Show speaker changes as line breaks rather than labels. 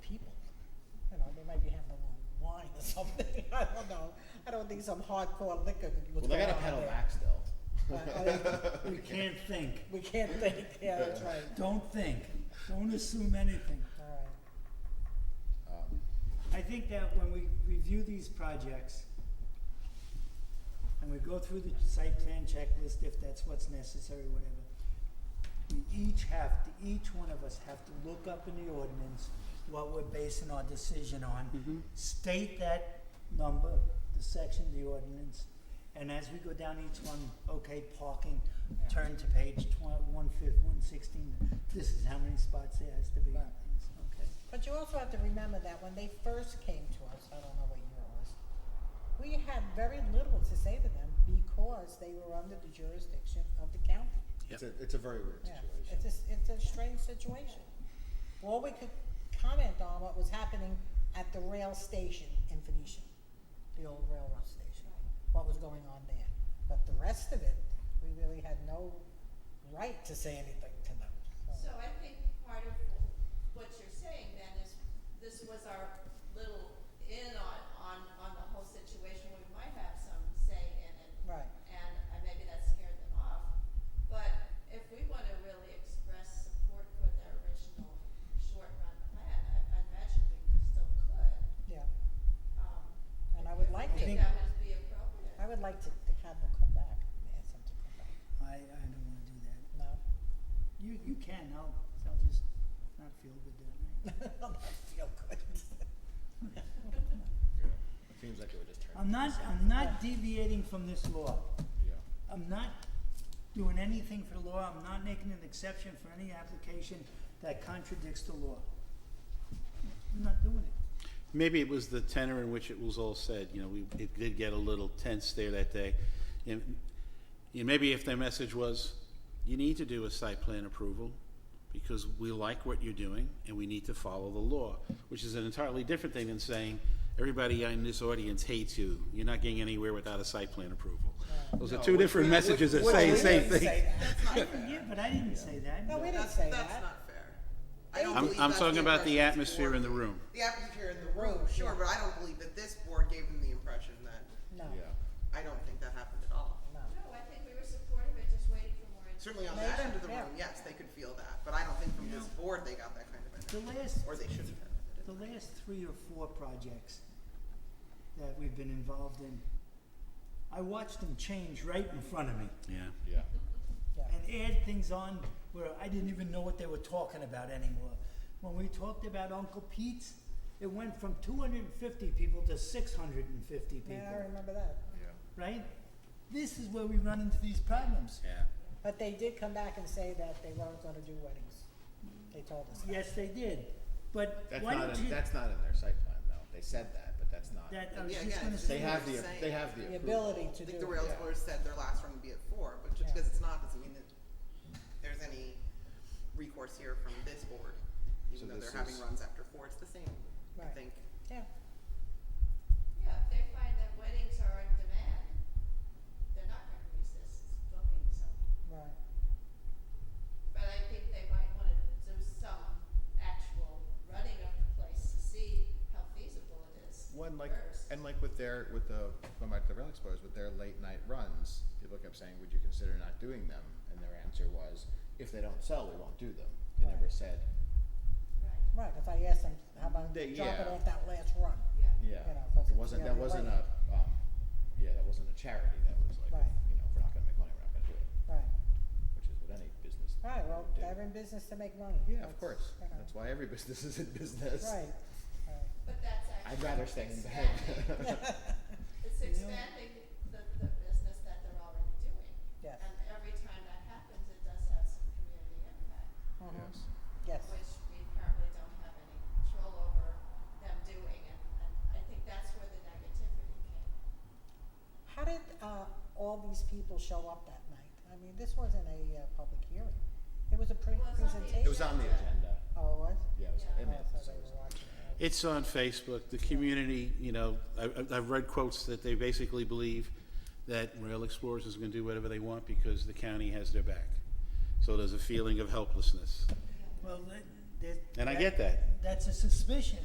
something, I don't know. I don't think some hardcore liquor was
Well,
going
they
on
gotta pedal
there.
back
Uh,
still.
I mean,
We can't think.
We can't think, yeah, that's right,
Don't think. Don't assume anything.
all right.
Um,
I think that when we review these projects and we go through the site plan checklist, if that's what's necessary, whatever, we each have to, each one of us have to look up in the ordinance what we're basing our decision on, state that number, the section of the ordinance, and as we go down each one, okay, parking, turn to page twen- one fif- one sixteen, this is how many spots there has to be,
Right.
okay?
But you also have to remember that when they first came to us, I don't know what year it was, we had very little to say to them because they were under the jurisdiction of the county.
It's a, it's a very weird
Yeah,
situation.
It's a, s- it's a strange situation. Well, we could comment on what was happening at the rail station in Phoenicia, the old railroad station, what was going on there. But the rest of it, we really had no right to say anything to them,
So I think part of what you're saying then is, this was our little in on, on, on the whole situation, we might have some say in it.
Right.
And uh, maybe that scared them off, but if we wanna really express support for their original short-run plan, I, I imagine we could- still could,
yeah.
um.
And I would
if-
like
to-
if we think that would be appropriate.
I would like to, to have them come back, ask them to come back,
I, I don't wanna do that.
no?
You, you can, I'll, I'll just not feel good that night.
That feel good.
Yeah. It seems like it would just turn.
Um,
I'm not, I'm not deviating from this law.
Yeah.
I'm not doing anything for the law, I'm not making an exception for any application that contradicts the law. I'm not doing it.
Maybe it was the tenor in which it was all said, you know, we, it did get a little tense there that day. And, and maybe if their message was, you need to do a site plan approval because we like what you're doing and we need to follow the law, which is an entirely different thing than saying, everybody in this audience hates you, you're not getting anywhere without a site plan approval. Those are
No,
two
we-
different
we-
messages that
we-
say the
we
same
didn't say
thing.
that.
Yeah, but I didn't say that.
No, we didn't
That's,
say
that's
that.
not fair. I don't
I'm-
believe
I'm
that's
talking about the
impression this
atmosphere
board
in the
gave.
room.
The atmosphere in the room,
Room, yeah.
sure, but I don't believe that this board gave them the impression that,
No,
Yeah.
I don't think that happened at all.
no.
No, I think we were supportive, I just waited for more. information.
Certainly on
They
that
did,
end of the
yeah.
room, yes, they could feel that, but I don't think from this board they got that kind of
The
energy,
last,
or they shouldn't have. had
the
it.
last three or four projects that we've been involved in, I watched them change right in front of me.
Yeah,
Yeah.
and add things on where I didn't even know what they were talking about anymore. When we talked about Uncle Pete's, it went from 250 people to 650 people,
Yeah, I remember that.
Yeah.
right? This is where we run into these problems.
yeah.
But they did come back and say that they weren't gonna do weddings. They told us that.
Yes, they did. But
That's
why
not,
don't you?
in- that's not in their site plan though. They said that, but that's not.
that I was
Yeah,
just
again,
going to
it's just
say.
They have
They're
the,
saying-
they have the
The
approval.
ability
I
to do
think
it.
the rails
yeah.
board said their last run would be at four, but
Yeah.
just because it's not, doesn't mean that there's any recourse here from this board,
So
even though
this
they're having
is-
runs after four, it's the same, I
Right.
think.
Yeah,
Yeah, if they find that weddings are in demand, they're not gonna resist booking some.
right.
But I think they might wanna do some actual running of the place to see how feasible it is first.
One like, and like with their, with the, going back to the rail explorers, with their late night runs, people kept saying, would you consider not doing them? And their answer was, if they don't sell, we won't do them. They
Right.
never said,
Right,
Right, if I asked them, how about
They-
dropping
yeah.
off that last run?
yeah.
yeah,
You know, 'cause
it wasn't,
the
that
other
wasn't
way.
a, um, yeah, that wasn't a charity. That was like,
Right.
you know, if we're not gonna make money, we're not gonna do it,
Right,
which is what any business would do.
right, well, they're in business to make money.
Yeah,
That's-
of course.
you know.
That's why every business is in business.
Right, right.
But that's actually.
I'd rather stay in bed.
expanding- It's expanding the, the business that they're already doing.
Yes.
And every time that happens, it does have some community impact.
Mhm.
Yes.
Yes,
which we apparently don't have any control over them doing, and, and I think that's where the negativity came.
how did, uh, all these people show up that night? I mean, this wasn't a, uh, public hearing. It was a pre-
It was on the
presentation.
It was on the agenda.
Oh, it was?
Yeah, it was
Yeah.
in
Oh,
it.
so
so
they
it was-
were watching. it.
It's on Facebook, the community, you know, I, I- I've read quotes that they basically believe that Rail Explorers is gonna do whatever they want because the county has their back. So there's a feeling of helplessness.
Well, that- that-
And I get that.
That's a suspicion.